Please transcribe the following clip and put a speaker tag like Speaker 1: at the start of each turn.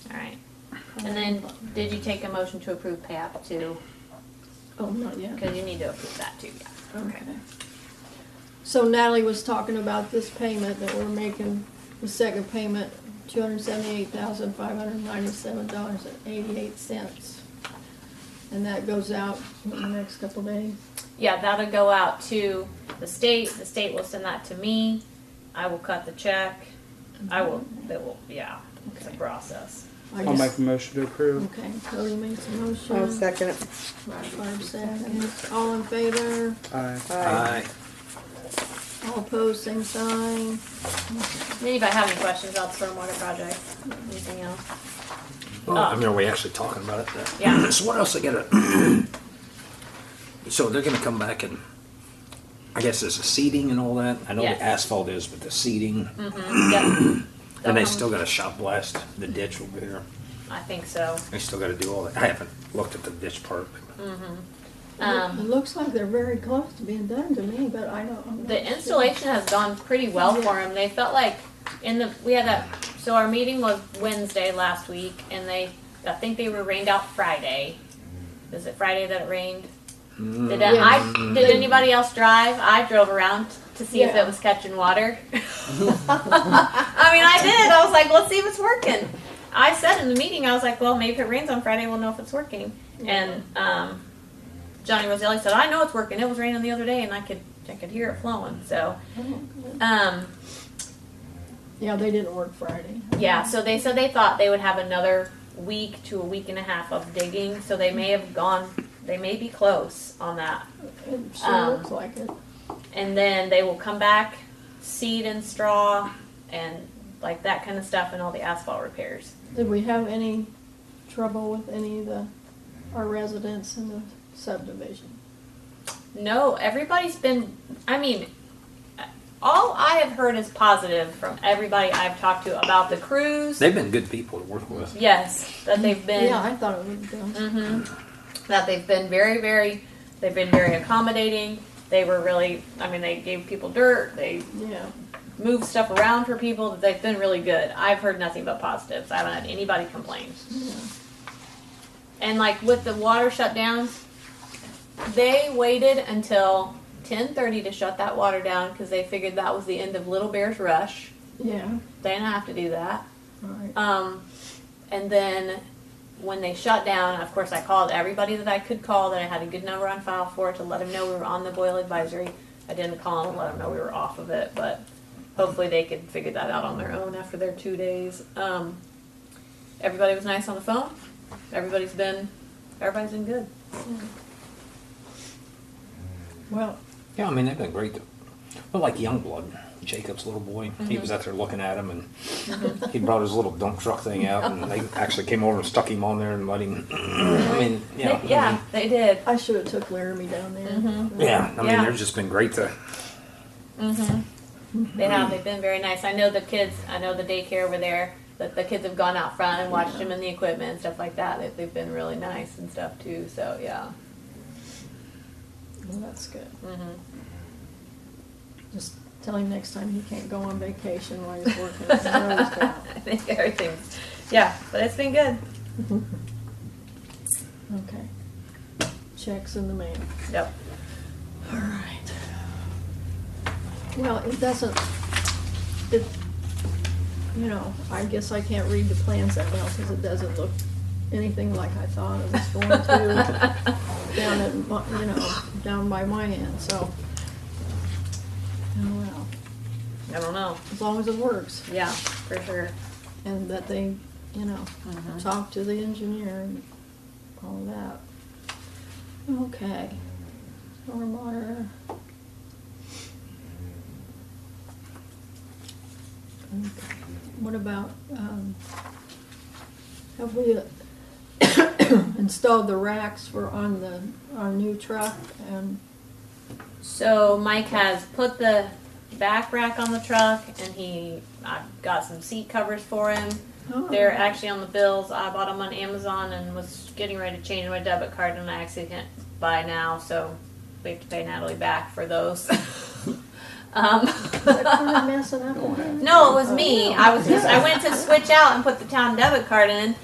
Speaker 1: And then, did you take a motion to approve PAP too?
Speaker 2: Oh, not yet.
Speaker 1: Because you need to approve that too, yeah.
Speaker 2: Okay. So Natalie was talking about this payment that we're making, the second payment, two hundred seventy-eight thousand, five hundred ninety-seven dollars and eighty-eight cents. And that goes out in the next couple days.
Speaker 1: Yeah, that'll go out to the state, the state will send that to me, I will cut the check, I will, it will, yeah, it's a
Speaker 2: Okay.
Speaker 1: process.
Speaker 2: I
Speaker 3: I'll make
Speaker 2: guess-
Speaker 3: a motion to approve.
Speaker 2: Okay, Cody makes a motion.
Speaker 4: I'll second it.
Speaker 2: Barb seconds. All in favor?
Speaker 3: Aye.
Speaker 5: Aye.
Speaker 2: All opposed, same sign.
Speaker 1: And then if I have any questions about the stormwater project, anything else?
Speaker 5: Well, I mean, are we actually talking about it?
Speaker 1: Yeah.
Speaker 5: So what else they gotta? So they're gonna come back and, I guess there's a seating and all that. I know
Speaker 1: Yes. Mm,
Speaker 5: the asphalt is, but the seating,
Speaker 1: Mm-hmm. Yep,
Speaker 5: and
Speaker 1: Um,
Speaker 5: they still gotta shop blast the ditch over here.
Speaker 1: I think so.
Speaker 5: They still gotta do all that. I haven't looked at the ditch part.
Speaker 1: Mm. Um,
Speaker 2: It looks like they're very close to being done to me, but I don't, I'm not
Speaker 1: the
Speaker 2: sure.
Speaker 1: installation has gone pretty well for them. They felt like in the we had that so our meeting was Wednesday last week, and they I think they were rained out Friday. Is it Friday that it rained? Did that, I did anybody else drive? I drove around to see if
Speaker 2: Yeah.
Speaker 1: it was catching water. I mean, I did. I was like, let's see if it's working. I said in the meeting, I was like, well, maybe if it rains on Friday, we'll know if it's working. And um, Johnny Roselli said, I know it's working. It was raining the other day, and I could I could hear it flowing. So,
Speaker 2: Oh.
Speaker 1: um,
Speaker 2: Yeah, they didn't work Friday.
Speaker 1: yeah. So they said they thought they would have another week to a week and a half of digging. So they may have gone. They may be close on that.
Speaker 2: It sure
Speaker 1: Um,
Speaker 2: looks like it.
Speaker 1: and then they will come back, seed and straw, and like that kind of stuff, and all the asphalt repairs.
Speaker 2: Did we have any trouble with any of the, our residents in the subdivision?
Speaker 1: No, everybody's been. I mean, all I have heard is positive from everybody I've talked to about the cruise.
Speaker 5: They've been good people to work with.
Speaker 1: yes, that they've been.
Speaker 2: Yeah, I thought it would go.
Speaker 1: hmm That they've been very, very, they've been very accommodating. They were really, I mean, they gave people dirt. They
Speaker 2: Yeah,
Speaker 1: moved stuff around for people. They've been really good. I've heard nothing but positives. I haven't had anybody complain.
Speaker 2: yeah.
Speaker 1: And like with the water shutdowns, they waited until 10:30 to shut that water down because they figured that was the end of Little Bear's rush.
Speaker 2: Yeah,
Speaker 1: They didn't have to do that.
Speaker 2: right.
Speaker 1: Um, and then when they shut down, of course, I called everybody that I could call that I had a good number on file for to let them know we were on the boil advisory. I didn't call them, let them know we were off of it, but hopefully they could figure that out on their own after their two days. Um, everybody was nice on the phone. Everybody's been, everybody's been good.
Speaker 2: Well,
Speaker 5: Yeah, I mean, they've been great. to- Well, like Youngblood, Jacob's little boy, he
Speaker 1: Mm-hmm.
Speaker 5: was out there looking at him, and he brought his little dump truck thing out, and they actually came over and stuck him on there and let him. I mean, yeah,
Speaker 1: They- yeah, they did.
Speaker 2: I should have took Laramie down there.
Speaker 1: Mm-hmm.
Speaker 5: I mean, yeah. I mean,
Speaker 1: Yeah.
Speaker 5: they've just been great to.
Speaker 1: Mm-hmm. They have. They've been very nice. I know the kids. I know the daycare over there. That the kids have gone out front and watched them in the equipment and stuff like that. They, they've been really nice and stuff too. So yeah.
Speaker 2: Well, that's good. Just tell him next time he can't go on vacation while he's working. his nose
Speaker 1: I
Speaker 2: down.
Speaker 1: think everything's. Yeah, but it's been good.
Speaker 2: Okay. Checks in the mail.
Speaker 1: Yep.
Speaker 2: All right. Well, it doesn't, it, you know, I guess I can't read the plans that well because it doesn't look anything like I thought it was going to down at, my- you know, down by my end, so. Oh, well,
Speaker 1: I don't know.
Speaker 2: as long as it works
Speaker 1: Yeah, for sure.
Speaker 2: and that they, you know, talk to the engineer and all that. Okay. Stormwater. Okay. What about, um, have we installed the racks for on the, our new truck and,
Speaker 1: So Mike has put the back rack on the truck, and he I got some seat covers for him.
Speaker 2: oh,
Speaker 1: They're actually on the bills. I bought them on Amazon and was getting ready to change my debit card, and I actually can't buy now, so we have to pay Natalie back for those. um,
Speaker 2: Is that kinda messing up?
Speaker 1: no, it was me. I was just I went to switch out and put the town debit card in,